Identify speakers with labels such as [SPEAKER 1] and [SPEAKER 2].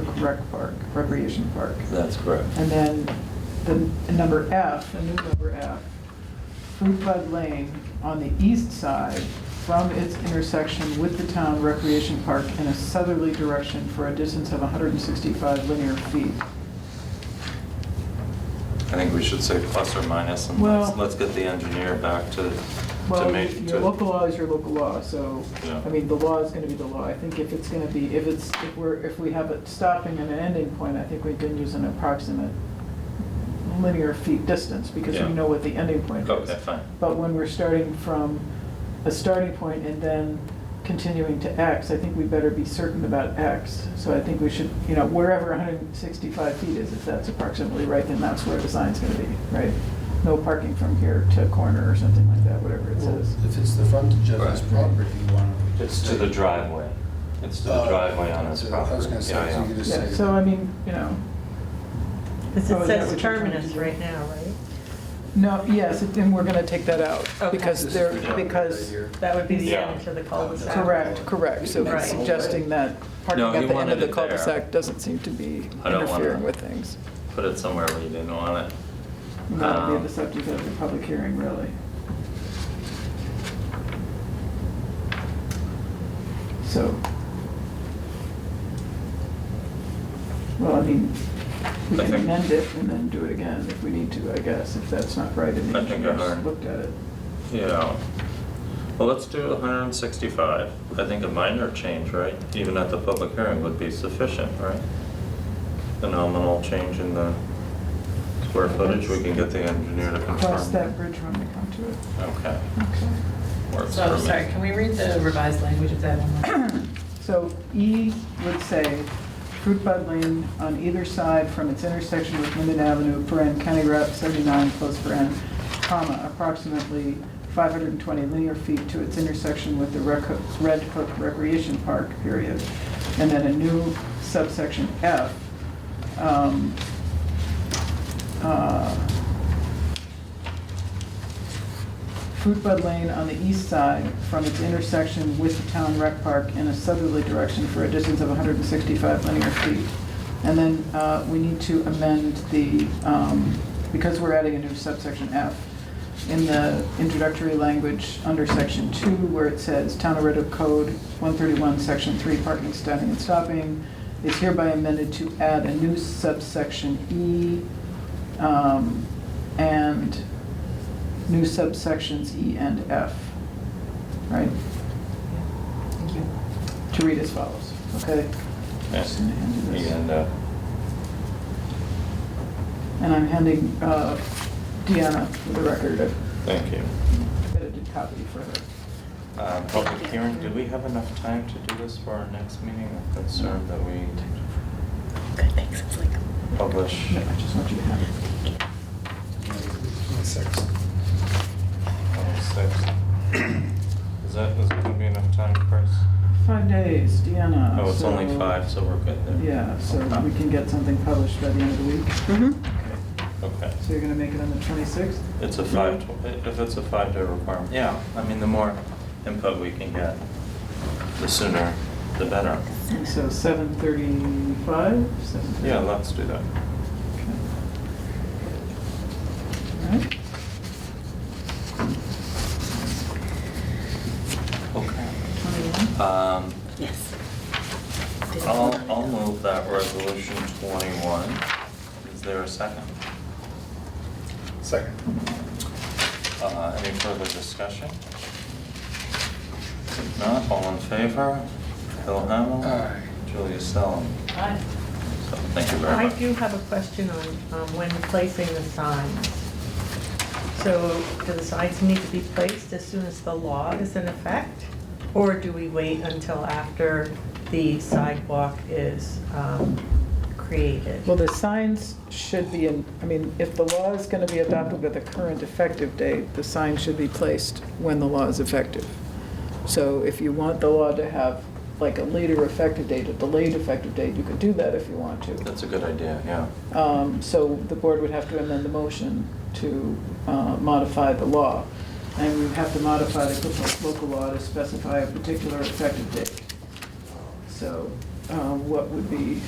[SPEAKER 1] rec park, recreation park.
[SPEAKER 2] That's correct.
[SPEAKER 1] And then the number F, the new number F, Fruit Bud Lane on the east side from its intersection with the town recreation park in a southerly direction for a distance of 165 linear feet.
[SPEAKER 2] I think we should say plus or minus, and
[SPEAKER 1] Well-
[SPEAKER 2] let's, let's get the engineer back to, to
[SPEAKER 1] Well,
[SPEAKER 2] make,
[SPEAKER 1] your
[SPEAKER 2] to,
[SPEAKER 1] local law is your local law, so,
[SPEAKER 2] Yeah.
[SPEAKER 1] I mean, the law is gonna be the law. I think if it's gonna be, if it's, if we're, if we have a stopping and an ending point, I think we can use an approximate linear feet distance, because
[SPEAKER 2] Yeah.
[SPEAKER 1] we know what the ending point is.
[SPEAKER 2] okay, fine.
[SPEAKER 1] But when we're starting from a starting point and then continuing to X, I think we better be certain about X. So I think we should, you know, wherever 165 feet is, if that's approximately right, then that's where the sign's going to be, right? No parking from here to corner or something like that, whatever it
[SPEAKER 3] Well,
[SPEAKER 1] says.
[SPEAKER 3] If it's the frontage of his
[SPEAKER 2] Right.
[SPEAKER 3] property, you want to...
[SPEAKER 2] It's to the driveway. It's to the
[SPEAKER 3] Uh,
[SPEAKER 2] driveway on his property.
[SPEAKER 3] I was going to say,
[SPEAKER 2] Yeah,
[SPEAKER 3] so you could
[SPEAKER 2] yeah.
[SPEAKER 3] just
[SPEAKER 1] Yeah,
[SPEAKER 3] say...
[SPEAKER 1] so I mean, you know,
[SPEAKER 4] Because
[SPEAKER 1] Oh,
[SPEAKER 4] it
[SPEAKER 1] is that
[SPEAKER 4] says
[SPEAKER 1] what you're trying to
[SPEAKER 4] terminus
[SPEAKER 1] do?
[SPEAKER 4] right now, right?
[SPEAKER 1] no, yes, and we're going to take that out.
[SPEAKER 4] Okay.
[SPEAKER 1] Because
[SPEAKER 3] This is
[SPEAKER 1] there,
[SPEAKER 3] the driveway right
[SPEAKER 1] because,
[SPEAKER 3] here.
[SPEAKER 4] That would be the
[SPEAKER 2] Yeah.
[SPEAKER 4] end to the cul-de-sac.
[SPEAKER 1] correct, correct. So
[SPEAKER 4] Right.
[SPEAKER 1] suggesting that parking
[SPEAKER 2] No, he
[SPEAKER 1] at the end
[SPEAKER 2] wanted
[SPEAKER 1] of the
[SPEAKER 2] it there.
[SPEAKER 1] cul-de-sac doesn't seem to be
[SPEAKER 2] I don't want
[SPEAKER 1] interfering
[SPEAKER 2] it.
[SPEAKER 1] with things.
[SPEAKER 2] Put it somewhere where you didn't want it.
[SPEAKER 1] That would
[SPEAKER 2] Um,
[SPEAKER 1] be the subject of the public hearing, really. So. Well, I mean, we can
[SPEAKER 2] I think-
[SPEAKER 1] amend it and then do it again if we need to, I guess, if that's not right and the
[SPEAKER 2] I think I
[SPEAKER 1] engineers
[SPEAKER 2] heard.
[SPEAKER 1] looked at it.
[SPEAKER 2] Yeah. Well, let's do 165. I think a minor change, right, even at the public hearing would be sufficient, right? The nominal change in the square footage, we can get the engineer to confirm.
[SPEAKER 1] Cross that bridge when we come to it.
[SPEAKER 2] Okay,
[SPEAKER 1] Okay.
[SPEAKER 2] works for
[SPEAKER 5] So,
[SPEAKER 2] me.
[SPEAKER 5] sorry, can we read the revised language of that one? more time?
[SPEAKER 1] So E would say, Fruit Bud Lane on either side from its intersection with Linden Avenue, paren, County Route 79, close paren, comma, approximately 520 linear feet to its intersection with the Rec- Red Hook Recreation Park, period. And then a new subsection F. um, uh, Fruit Bud Lane on the east side from its intersection with the town rec park in a southerly direction for a distance of 165 linear feet. And then uh, we need to amend the, um, because we're adding a new subsection F, in the introductory language under section two, where it says, Town of Red Hook Code 131, section three, parking, standing, and stopping, is hereby amended to add a new subsection E um, and new subsections E and F, right?
[SPEAKER 5] Thank you.
[SPEAKER 1] To read as follows, okay?
[SPEAKER 2] Yes.
[SPEAKER 1] And I hand you this.
[SPEAKER 2] And, uh,
[SPEAKER 1] And I'm handing uh, Deanna, for the record, a
[SPEAKER 2] thank you.
[SPEAKER 1] edited copy for her.
[SPEAKER 2] Uh, Public hearing, do we have enough time to do this for our next meeting? I'm concerned that we
[SPEAKER 4] Good, thanks, it's like.
[SPEAKER 2] publish.
[SPEAKER 1] I just want you to have it.
[SPEAKER 3] Six.
[SPEAKER 2] Six. Is that, is it gonna be enough time, Chris?
[SPEAKER 1] Five days, Deanna.
[SPEAKER 2] Oh, it's only
[SPEAKER 1] Uh, so-
[SPEAKER 2] five, so we're good there.
[SPEAKER 1] Yeah, so
[SPEAKER 2] Okay.
[SPEAKER 1] we can get something published by the end of the week.
[SPEAKER 2] Mm-hmm. Okay.
[SPEAKER 1] So you're gonna make it on the 26th?
[SPEAKER 2] It's a five, tw- if it's a five-day requirement, yeah, I mean, the more input we can get, the sooner, the better.
[SPEAKER 1] So 7:35?
[SPEAKER 2] Yeah, let's do that.
[SPEAKER 1] Alright.
[SPEAKER 2] Okay.
[SPEAKER 1] 21?
[SPEAKER 2] Um,
[SPEAKER 4] Yes.
[SPEAKER 2] I'll, I'll move that resolution 21. Is there a second?
[SPEAKER 3] Second.
[SPEAKER 2] Uh, Any further discussion? If not, all in favor? Phil Hamel?
[SPEAKER 3] Aye.
[SPEAKER 2] Julia Stellum?
[SPEAKER 5] Aye.
[SPEAKER 2] So, thank you very
[SPEAKER 4] I
[SPEAKER 2] much.
[SPEAKER 4] do have a question on um, when placing the signs. So do the signs need to be placed as soon as the law is in effect? Or do we wait until after the sidewalk is um, created?
[SPEAKER 1] Well, the signs should be in, I mean, if the law is gonna be adopted with a current effective date, the sign should be placed when the law is effective. So if you want the law to have like a later effective date, a delayed effective date, you could do that if you want to.
[SPEAKER 2] That's a good idea, yeah.
[SPEAKER 1] Um, So the board would have to amend the motion to uh, modify the law. And we would have to modify the local- local law to specify a particular effective date. So uh, what would be